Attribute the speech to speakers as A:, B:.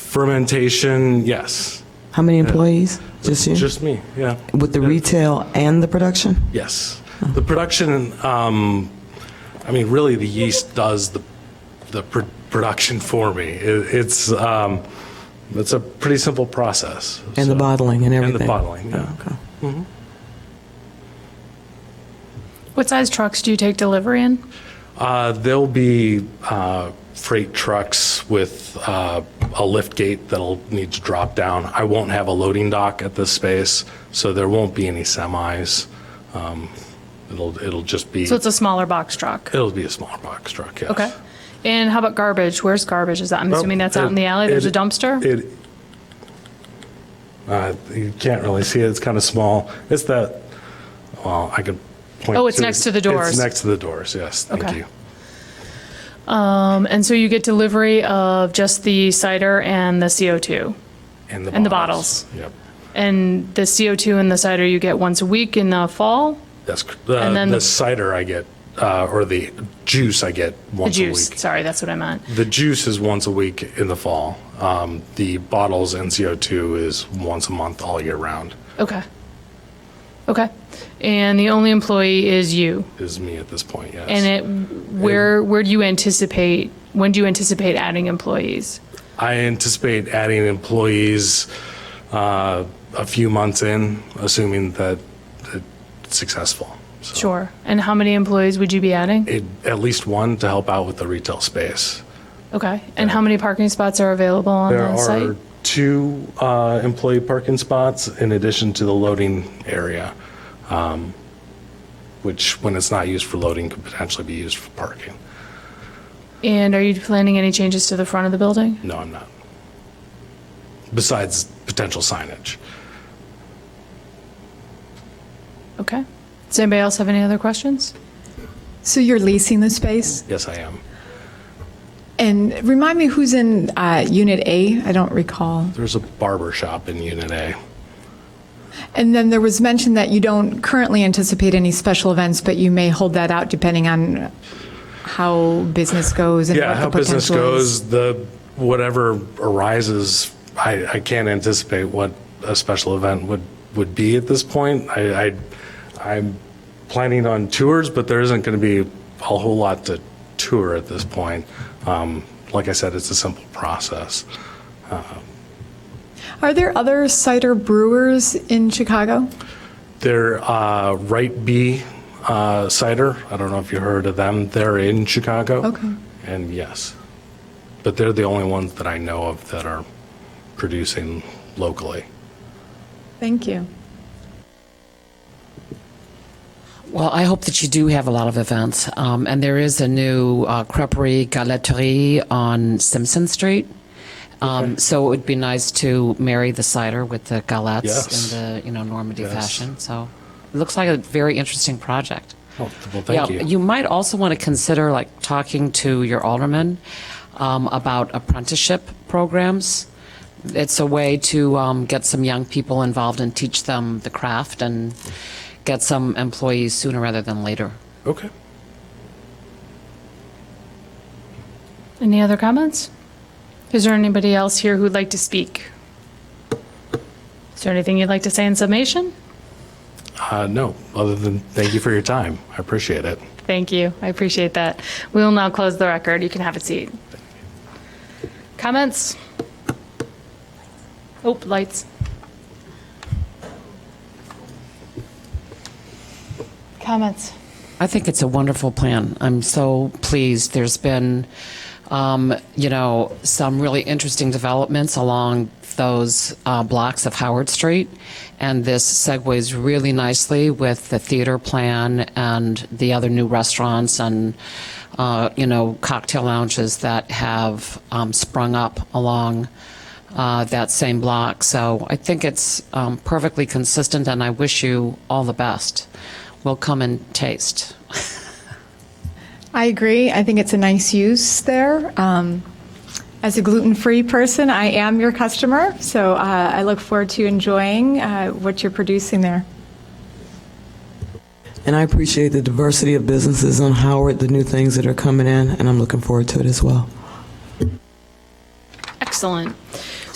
A: Fermentation, yes.
B: How many employees? Just you?
A: Just me, yeah.
B: With the retail and the production?
A: Yes. The production, um, I mean, really, the yeast does the, the pr- production for me. It, it's, um, it's a pretty simple process. so-
B: And the bottling and
A: the
B: everything?
A: bottling, yeah.
B: Oh, okay.
C: What size trucks do you take delivery in?
A: Uh, there'll be uh, freight trucks with uh, a lift gate that'll need to drop down. I won't have a loading dock at this space, so there won't be any semis. Um, it'll it'll just be
C: So it's a smaller box truck.
A: it'll be a smaller box truck. Yes.
C: Okay. And how about garbage? Where's garbage? Is that, I'm assuming that's out in the alley? There's a
A: It-
C: dumpster?
A: It. Uh, you can't really see it. It's kind of small. It's that. Well, I could. Point
C: Oh, it's
A: to-
C: next to the doors.
A: It's next to the doors. Yes. Thank
C: Okay.
A: you.
C: Um, And so you get delivery of just the cider and the CO2?
A: And the
C: And the
A: Yep.
C: And the CO2 and the cider you get once a week in the fall?
A: That's cr- the,
C: And then
A: the
C: the-
A: cider I get, uh, or the juice I get
C: The
A: once
C: juice,
A: a week.
C: sorry, that's what I meant.
A: The juice is once a week in the fall. Um, the bottles and CO2 is once a month all year round.
C: Okay. Okay. And the only employee is you?
A: Is me at this point, yes.
C: And it, where, where do you anticipate, when do you anticipate adding employees?
A: Uh, I anticipate adding employees uh, a few months in, assuming that it's successful. So
C: Sure. And how many employees would you be adding?
A: it, at least one to help out with the retail space.
C: Okay. And how many parking spots are available on
A: There
C: the
A: are
C: site?
A: two uh, employee parking spots in addition to the loading area, um, which, when it's not used for loading, could potentially be used for parking.
C: And are you planning any changes to the front of the building?
A: No, I'm not. Besides potential signage.
C: Okay. Does anybody else have any other questions?
D: So you're leasing the space?
A: Yes, I am.
D: And remind me who's in uh, Unit A? I don't recall.
A: There's a barber shop in Unit A.
D: And then there was mention that you don't currently anticipate any special events, but you may hold that out depending on how business goes and
A: Yeah,
D: what
A: how
D: the potential
A: business
D: is.
A: goes, the, whatever arises, I, I can't anticipate what a special event would, would be at this point. I, I, I'm planning on tours, but there isn't going to be a whole lot to tour at this point. Um, Like I said, it's a simple process.
D: Are there other cider brewers in Chicago?
A: Their uh, Right B uh, cider, I don't know if you heard of them, they're in Chicago.
D: Okay.
A: And yes, but they're the only ones that I know of that are producing locally.
D: Thank you.
E: Well, I hope that you do have a lot of events. Um, and there is a new uh, creperie galeterie on Simpson Street. Um, So it would be nice to marry the cider with the galettes
A: Yes.
E: in the you know Normandy
A: Yes.
E: fashion. So it looks like a very interesting project.
A: Oh, well, thank
E: yeah,
A: you.
E: might also want to consider like talking to your alderman um, about apprenticeship programs. It's a way to um, get some young people involved and teach them the craft and get some employees sooner rather than later.
A: Okay.
C: Any other comments? Is there anybody else here who'd like to speak? Is there anything you'd like to say in summation?
A: Uh, no, other than thank you for your time. I appreciate it.
C: Thank you. I appreciate that. We will now close the record. You can have a seat. Comments? Oh, lights. Comments?
E: I think it's a wonderful plan. I'm so pleased. There's been, um, you know, some really interesting developments along those uh, blocks of Howard Street, and this segues really nicely with the theater plan and the other new restaurants and, uh, you know, cocktail lounges that have um, sprung up along uh, that same block. So I think it's um, perfectly consistent, and I wish you all the best will come and taste.
D: I agree. I think it's a nice use there. Um, as a gluten free person, I am your customer, so uh, I look forward to enjoying uh, what you're producing there.
B: And I appreciate the diversity of businesses on Howard, the new things that are coming in, and I'm looking forward to it as well.
C: Excellent.